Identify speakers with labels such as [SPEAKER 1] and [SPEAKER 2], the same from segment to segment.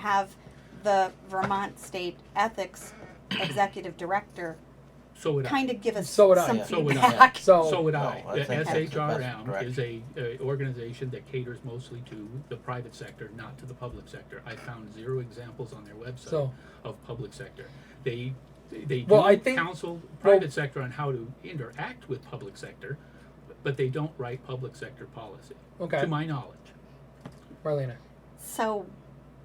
[SPEAKER 1] have the Vermont State Ethics Executive Director
[SPEAKER 2] So would I.
[SPEAKER 1] kind of give us
[SPEAKER 3] So would I.
[SPEAKER 1] some
[SPEAKER 3] Yeah.
[SPEAKER 2] So would I.
[SPEAKER 1] feedback.
[SPEAKER 2] So
[SPEAKER 3] So,
[SPEAKER 2] would
[SPEAKER 4] No,
[SPEAKER 2] I.
[SPEAKER 4] Oh, I
[SPEAKER 2] The
[SPEAKER 4] think that's the best
[SPEAKER 2] SHRM is a,
[SPEAKER 4] direction.
[SPEAKER 2] a organization that caters mostly to the private sector, not to the public sector. I found zero examples on their website
[SPEAKER 3] So-
[SPEAKER 2] of public sector. They, they
[SPEAKER 3] Well, I
[SPEAKER 2] do
[SPEAKER 3] think-
[SPEAKER 2] counsel private sector on how to interact with public sector, but they don't write public sector policy,
[SPEAKER 3] okay,
[SPEAKER 2] to my knowledge.
[SPEAKER 3] Marlena.
[SPEAKER 1] So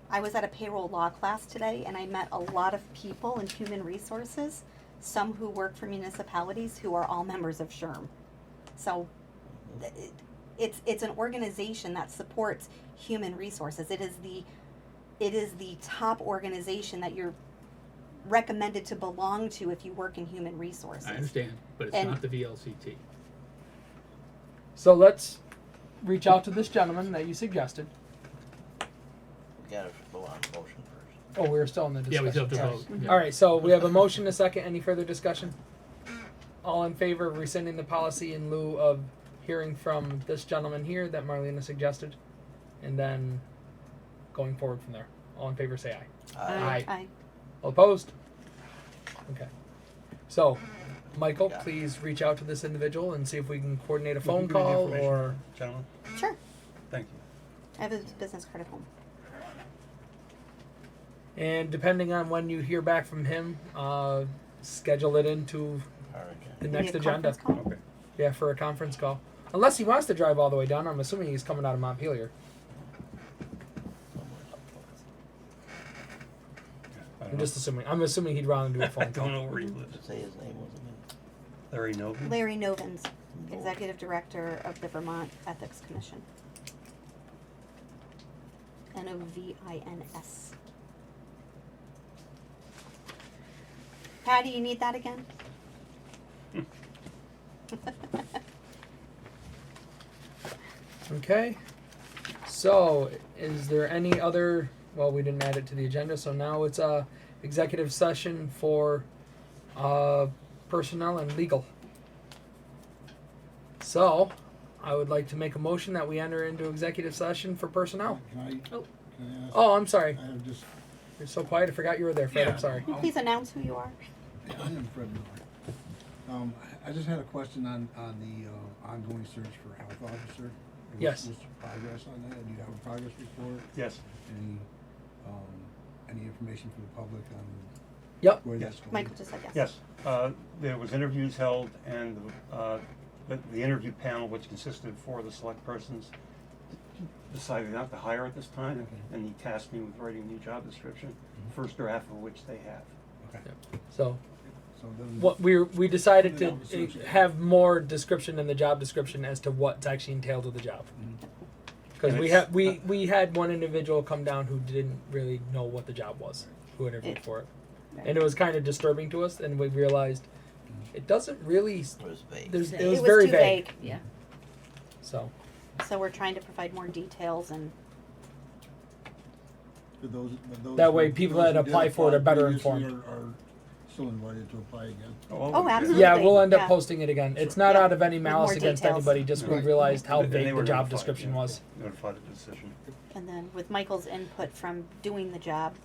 [SPEAKER 1] I was at a payroll law class today and I met a lot of people in human resources, some who work for municipalities who are all members of SHRM. So th- it- it's it's an organization that supports human resources. It is the it is the top organization that you're recommended to belong to if you work in human resources.
[SPEAKER 2] I understand, but it's
[SPEAKER 1] And-
[SPEAKER 2] not the VLCT.
[SPEAKER 3] So let's reach out to this gentleman that you suggested.
[SPEAKER 4] We gotta go on the motion first.
[SPEAKER 3] Oh, we are still in the
[SPEAKER 2] Yeah,
[SPEAKER 3] discussion.
[SPEAKER 2] we still have to
[SPEAKER 3] Sorry.
[SPEAKER 2] vote. yeah.
[SPEAKER 3] All right, so we have a motion, and a second. Any further discussion? All in favor of rescinding the policy in lieu of hearing from this gentleman here that Marlena suggested, and then going forward from there. All in favor, say aye.
[SPEAKER 4] Aye.
[SPEAKER 2] Aye.
[SPEAKER 1] Aye.
[SPEAKER 3] All opposed? Okay. So, Michael,
[SPEAKER 4] Yeah.
[SPEAKER 3] please reach out to this individual and see if we can coordinate a
[SPEAKER 5] If you
[SPEAKER 3] phone
[SPEAKER 5] give me the
[SPEAKER 3] call
[SPEAKER 5] information,
[SPEAKER 3] or.
[SPEAKER 5] Gentlemen,
[SPEAKER 1] Sure.
[SPEAKER 5] thank you.
[SPEAKER 1] I have a business card at home.
[SPEAKER 3] And depending on when you hear back from him, uh, schedule it into
[SPEAKER 4] Our agenda.
[SPEAKER 3] the
[SPEAKER 1] Need a
[SPEAKER 3] next agenda.
[SPEAKER 1] conference call?
[SPEAKER 5] Okay.
[SPEAKER 3] Yeah, for a conference call. Unless he wants to drive all the way down. I'm assuming he's coming out of Montpelier.
[SPEAKER 4] Somewhere's up north.
[SPEAKER 5] I
[SPEAKER 3] I'm
[SPEAKER 5] don't
[SPEAKER 3] just assuming. I'm assuming he'd rather do
[SPEAKER 5] know.
[SPEAKER 3] a
[SPEAKER 5] I
[SPEAKER 3] phone call.
[SPEAKER 5] don't know where he lives.
[SPEAKER 4] Say his name wasn't
[SPEAKER 5] Larry Novin?
[SPEAKER 1] Larry Novins, Executive Director of the Vermont Ethics Commission. N O V I N S. Patty, you need that again?
[SPEAKER 3] Okay. So, is there any other? Well, we didn't add it to the agenda, so now it's a executive session for uh, personnel and legal. So, I would like to make a motion that we enter into executive session for personnel.
[SPEAKER 6] Can I,
[SPEAKER 3] Oh.
[SPEAKER 6] can I ask,
[SPEAKER 3] Oh, I'm sorry.
[SPEAKER 6] I am just,
[SPEAKER 3] You're so quiet. I forgot you were there, Fred. I'm sorry.
[SPEAKER 1] Can you please announce who you are?
[SPEAKER 6] I am Fred Miller. Um, I just had a question on, on the, uh, ongoing search for health officer. What's-
[SPEAKER 3] Yes.
[SPEAKER 6] What's the progress on that? Do you have a progress report?
[SPEAKER 5] Yes.
[SPEAKER 6] Any, um, any information for the public on
[SPEAKER 3] Yep.
[SPEAKER 6] where
[SPEAKER 5] Yes.
[SPEAKER 6] that's going?
[SPEAKER 1] Michael just said yes.
[SPEAKER 5] Yes, uh, there was interviews held and, uh, the, the interview panel, which consisted of four of the select persons, decided not to hire at this time, and he tasked me with writing a new job description,
[SPEAKER 3] Mm-hmm.
[SPEAKER 5] first draft of which they have.
[SPEAKER 6] Okay,
[SPEAKER 3] So,
[SPEAKER 6] so then.
[SPEAKER 3] what we we decided to uh, have more description in the job description as to what's actually entailed with the job. Because
[SPEAKER 5] Mm-hmm. And
[SPEAKER 3] we
[SPEAKER 5] it's-
[SPEAKER 3] had we we had one individual come down who didn't really know what the job was, who interviewed
[SPEAKER 1] It-
[SPEAKER 3] for it, and it was kind of disturbing to us. And we realized
[SPEAKER 5] Mm-hmm.
[SPEAKER 3] it doesn't really. s-
[SPEAKER 4] It was vague.
[SPEAKER 3] There's
[SPEAKER 7] Vague.
[SPEAKER 3] it was very
[SPEAKER 1] too
[SPEAKER 3] vague.
[SPEAKER 1] vague,
[SPEAKER 7] Yeah.
[SPEAKER 3] So
[SPEAKER 1] so we're trying to provide more details and
[SPEAKER 6] For those, for those.
[SPEAKER 3] That
[SPEAKER 6] who-
[SPEAKER 3] way people
[SPEAKER 6] those who
[SPEAKER 3] that
[SPEAKER 6] did
[SPEAKER 3] apply for it are
[SPEAKER 6] apply
[SPEAKER 3] better
[SPEAKER 6] previously
[SPEAKER 3] informed.
[SPEAKER 6] Are are still invited to apply again.
[SPEAKER 1] Oh,
[SPEAKER 5] okay.
[SPEAKER 1] absolutely.
[SPEAKER 3] yeah, we'll end up
[SPEAKER 1] Yeah.
[SPEAKER 3] posting it again. It's not
[SPEAKER 1] Yeah.
[SPEAKER 3] out of any
[SPEAKER 1] With more
[SPEAKER 3] malice against
[SPEAKER 1] details.
[SPEAKER 3] anybody. Just we
[SPEAKER 6] Right.
[SPEAKER 3] realized how
[SPEAKER 5] And they
[SPEAKER 3] vague the
[SPEAKER 5] were
[SPEAKER 3] job
[SPEAKER 5] notified,
[SPEAKER 3] description
[SPEAKER 5] yeah,
[SPEAKER 3] was.
[SPEAKER 5] Notified of the decision.
[SPEAKER 1] and then with Michael's input from doing the job,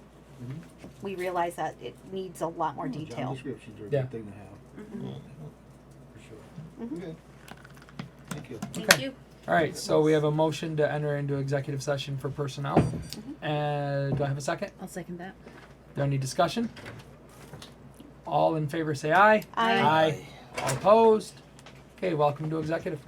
[SPEAKER 6] Mhm.
[SPEAKER 1] we realize that it needs a lot more
[SPEAKER 6] Job
[SPEAKER 1] detail. Mm-hmm.
[SPEAKER 6] descriptions are a
[SPEAKER 3] Yeah.
[SPEAKER 6] good thing to have, for sure.
[SPEAKER 1] Mhm.
[SPEAKER 6] Okay. Thank you.
[SPEAKER 1] Thank
[SPEAKER 3] Okay.
[SPEAKER 1] you.
[SPEAKER 3] All right, so we have a motion to enter into executive session for personnel. And do I have a second?
[SPEAKER 7] I'll second that.
[SPEAKER 3] Is there any discussion? All in favor say aye.
[SPEAKER 1] Aye.
[SPEAKER 3] All opposed? Okay, welcome to executive.